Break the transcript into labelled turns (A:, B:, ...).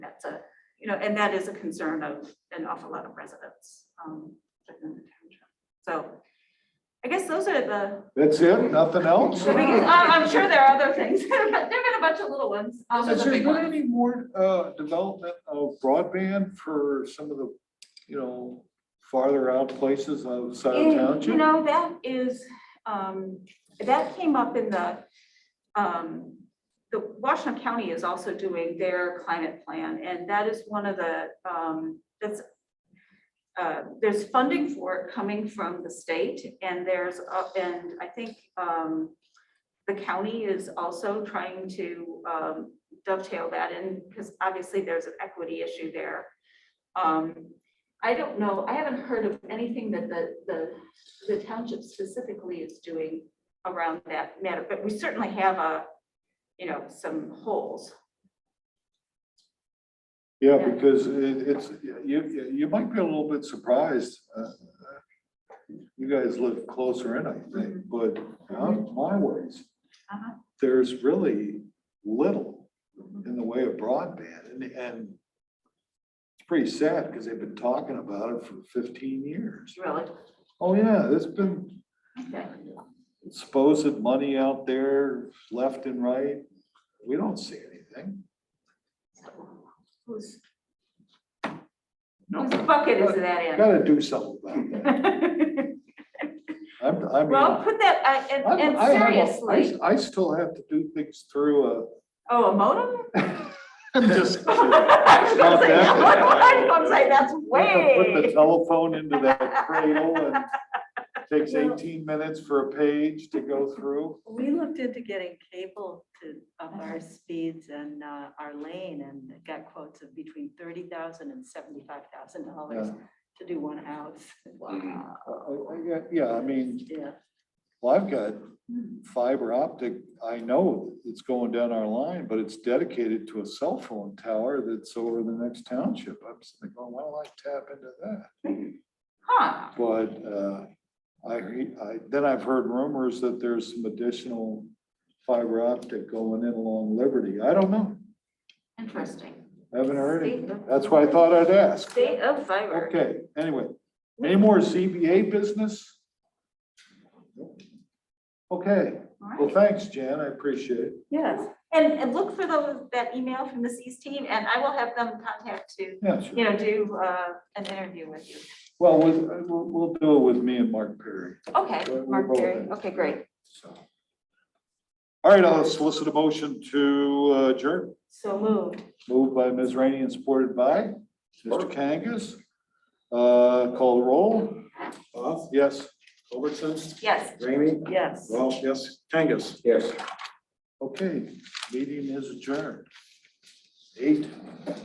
A: that's a, you know, and that is a concern of an awful lot of residents. um, within the township. So I guess those are the,
B: That's it? Nothing else?
A: the biggest- I- I'm sure there are other things, but there have been a bunch of little ones. Um,
B: Has
A: the
B: there
A: big
B: been
A: ones.
B: any more uh, development of broadband for some of the, you know, farther out places outside of
A: And, You
B: township?
A: know, that is, um, that came up in the, um, the Washington County is also doing their climate plan, and that is one of the, um, that's, uh, there's funding for it coming from the state, and there's, uh, and I think, um, the county is also trying to, um, dovetail that in, because obviously there's an equity issue there. Um, I don't know, I haven't heard of anything that the, the, the township specifically is doing around that matter, but we certainly have a, you know, some holes.
B: Yeah, because it- it's, you, you- you might be a little bit surprised. uh, You guys live closer in, I think, but out my ways,
A: Mm-hmm. Uh-huh.
B: there's really little in the way of broadband and, and it's pretty sad because they've been talking about it for fifteen years.
A: Really?
B: Oh, yeah, there's been
A: Okay.
B: supposed money out there, left and right. We don't see anything.
A: Whose whose bucket is that
B: Gotta do something about that.
A: in?
B: I'm, I mean.
A: Well, put that, I-
B: I'm-
A: and, and
B: I have a-
A: seriously,
B: I I still have to do things through
A: oh, a modem?
B: a. I'm just.
A: I was gonna say,
B: Not that.
A: I was gonna say, that's
B: Put the
A: way.
B: telephone into that cradle and takes eighteen minutes for a page to go through.
C: We looked into getting cable to, of our speeds and uh, our lane and got quotes of between thirty thousand and seventy-five thousand dollars
B: Yeah.
C: to do one house.
A: Wow.
B: Uh, I- I got- Yeah, I mean,
C: Yeah,
B: well, I've got fiber optic. I know it's going down our line, but it's dedicated to a cell phone tower that's over the next township. I'm sitting there going, why don't I tap into that?
A: Huh,
B: But uh, I, re- I, then I've heard rumors that there's some additional fiber optic going in along Liberty. I don't know.
A: interesting.
B: Haven't heard it.
A: State of-
B: That's why I thought I'd ask.
A: State of fiber.
B: Okay, anyway, any more ZBA business? Okay,
A: All right.
B: well, thanks, Jan. I appreciate it.
C: yes,
A: And, and look for those, that email from the C's team, and I will have them contact to,
B: Yeah, sure.
A: you know, do, uh, an interview with you.
B: Well, we'll, we'll, we'll do it with me and Mark Perry.
A: Okay,
B: We'll- we'll
A: Mark
B: roll
A: Perry,
B: that.
A: okay, great.
B: so. All right, I'll solicit a motion to uh, adjourn.
A: So moved.
B: Moved by Ms. Rainey and supported by Mr. Kangas. Uh, Call the roll.
D: Goff,
B: Yes.
D: Culbertson,
A: Yes.
D: Ramey,
C: yes.
D: Welsh, yes, Kangas. Yes.
B: Okay, meeting is adjourned. Eight.